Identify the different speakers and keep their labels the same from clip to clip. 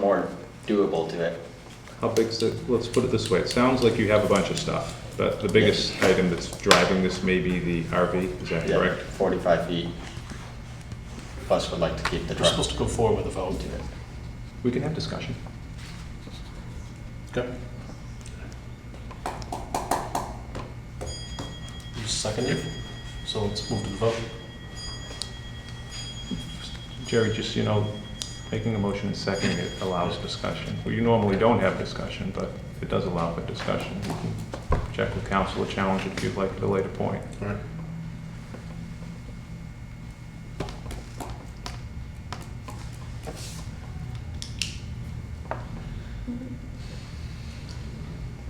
Speaker 1: more doable to it.
Speaker 2: How big's it? Let's put it this way. It sounds like you have a bunch of stuff, but the biggest item that's driving this may be the RV. Is that
Speaker 1: Yeah,
Speaker 2: correct?
Speaker 1: Forty-five feet. Plus, would like to keep the
Speaker 3: We're
Speaker 1: truck.
Speaker 3: supposed to go forward with a vote.
Speaker 2: We can have discussion.
Speaker 3: Okay. Seconded, so let's move to the vote.
Speaker 2: Jerry, just, you know, making a motion and seconding it allows discussion. We normally don't have discussion, but it does allow for discussion. You can check with council or challenge it if you'd like at a later point.
Speaker 3: All right.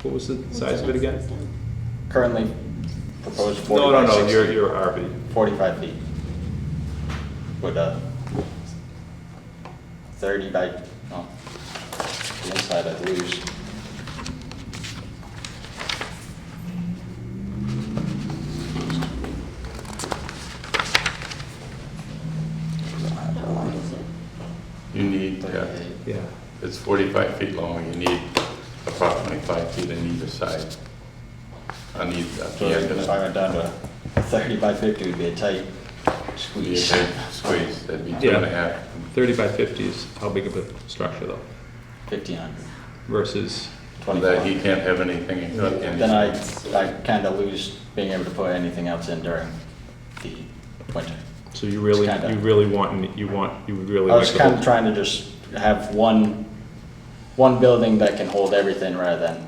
Speaker 2: What was the size of it again?
Speaker 1: Currently proposed
Speaker 2: No, no,
Speaker 1: forty-five,
Speaker 2: no, your,
Speaker 1: sixty,
Speaker 2: your RV.
Speaker 1: forty-five feet. With a thirty by, no, the inside I lose.
Speaker 4: How long is it?
Speaker 5: You need, yeah,
Speaker 1: Thirty-eight.
Speaker 2: Yeah.
Speaker 5: it's 45 feet long, you need approximately five feet on either side. On either, at the
Speaker 1: So
Speaker 5: end of
Speaker 1: if I
Speaker 5: it.
Speaker 1: went down to thirty by fifty, would be a tight
Speaker 5: Be a
Speaker 1: squeeze.
Speaker 5: big squeeze, that'd be two and a
Speaker 2: Yeah.
Speaker 5: half.
Speaker 2: Thirty by fifty is how big of a structure though,
Speaker 1: Fifteen hundred,
Speaker 2: versus,
Speaker 5: And
Speaker 1: twenty-four.
Speaker 5: That he can't have anything, in- in-
Speaker 1: Then I, I kind of lose being able to put anything else in during the winter.
Speaker 2: so you really,
Speaker 1: It's kinda-
Speaker 2: you really want, you want, you would
Speaker 1: I
Speaker 2: really like.
Speaker 1: was
Speaker 2: the
Speaker 1: kind of
Speaker 2: whole-
Speaker 1: trying to just have one, one building that can hold everything rather than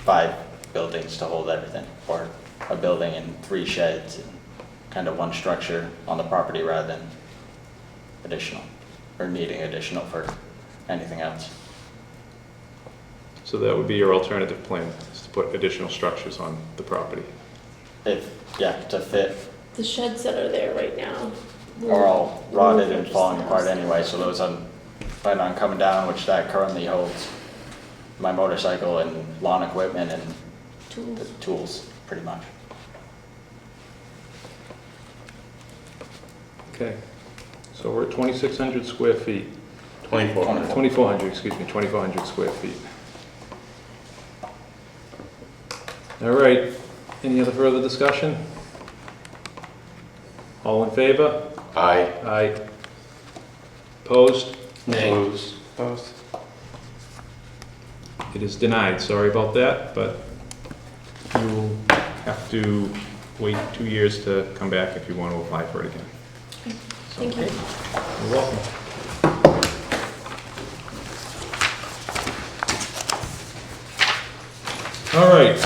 Speaker 1: five buildings to hold everything, or a building and three sheds, and kind of one structure on the property rather than additional, or needing additional for anything else.
Speaker 2: So that would be your alternative plan, is to put additional structures on the property.
Speaker 1: If, yeah, to fit
Speaker 4: The sheds that are there right now.
Speaker 1: are all rotted and falling apart anyway, so those I'm planning on coming down, which that currently holds my motorcycle and lawn equipment and the
Speaker 4: Tools.
Speaker 1: tools, pretty much.
Speaker 2: Okay. So we're at 2,600 square feet,
Speaker 5: 2,400.
Speaker 2: 2,400, excuse me, 2,400 square feet. All right, any other further discussion? All in favor?
Speaker 5: Aye.
Speaker 2: Aye. Opposed?
Speaker 5: Opposed. Opposed.
Speaker 2: It is denied, sorry about that, but you will have to wait two years to come back if you want to apply for it again.
Speaker 4: Thank you.
Speaker 2: You're welcome. All right.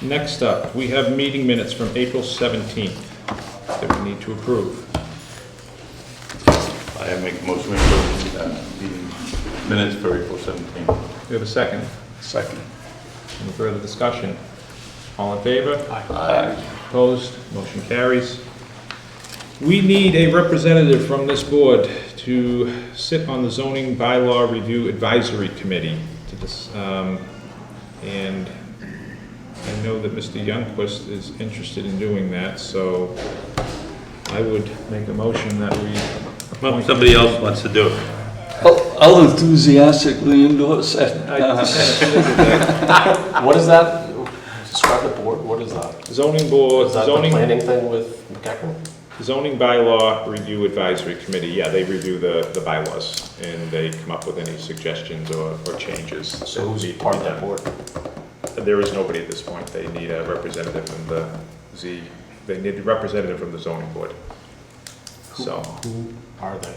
Speaker 2: Next up, we have meeting minutes from April 17th that we need to approve.
Speaker 5: I make a motion to approve the uh, minutes for April 17th.
Speaker 2: We have a second.
Speaker 5: Second.
Speaker 2: Any further discussion? All in favor?
Speaker 5: Aye.
Speaker 2: Opposed, motion carries. We need a representative from this board to sit on the zoning bylaw review advisory committee to this, um, and I know that Mr. Youngquist is interested in doing that, so I would make a motion that we
Speaker 6: Well,
Speaker 2: appoint.
Speaker 6: somebody else wants to do it.
Speaker 7: I'll I'll enthusiastically endorse that.
Speaker 3: What is that? Describe the board, what is that?
Speaker 2: Zoning board,
Speaker 3: Is that the
Speaker 2: zoning,
Speaker 3: planning thing with McEachran?
Speaker 2: zoning bylaw review advisory committee, yeah, they review the, the bylaws, and they come up with any suggestions or, or changes.
Speaker 3: So who's
Speaker 2: that need to
Speaker 3: part
Speaker 2: be
Speaker 3: of that
Speaker 2: done.
Speaker 3: board?
Speaker 2: There is nobody at this point. They need a representative from the Z, they need a representative from the zoning board. So,
Speaker 3: Who are they?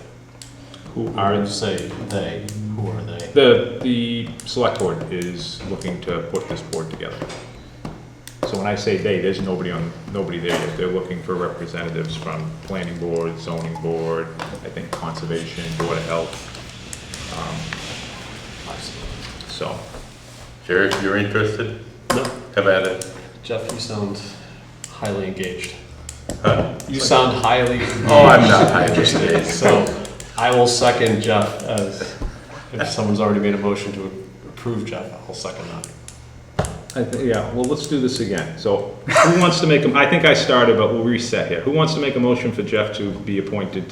Speaker 2: who
Speaker 3: Or
Speaker 2: are,
Speaker 3: you say they, who are they?
Speaker 2: the, the select board is looking to put this board together. So when I say they, there's nobody on, nobody there yet. They're looking for representatives from planning board, zoning board, I think conservation, board of health. Um, So,
Speaker 5: Jerry, if you're interested,
Speaker 3: No.
Speaker 5: have at it.
Speaker 3: Jeff, you sound highly engaged.
Speaker 5: Huh.
Speaker 3: You sound highly.
Speaker 5: Oh, I'm not highly engaged.
Speaker 3: So I will second Jeff as, if someone's already made a motion to approve Jeff, I'll second that.
Speaker 2: I thi- Yeah, well, let's do this again. So who wants to make, a- I think I started, but we'll reset here. Who wants to make a motion for Jeff to be appointed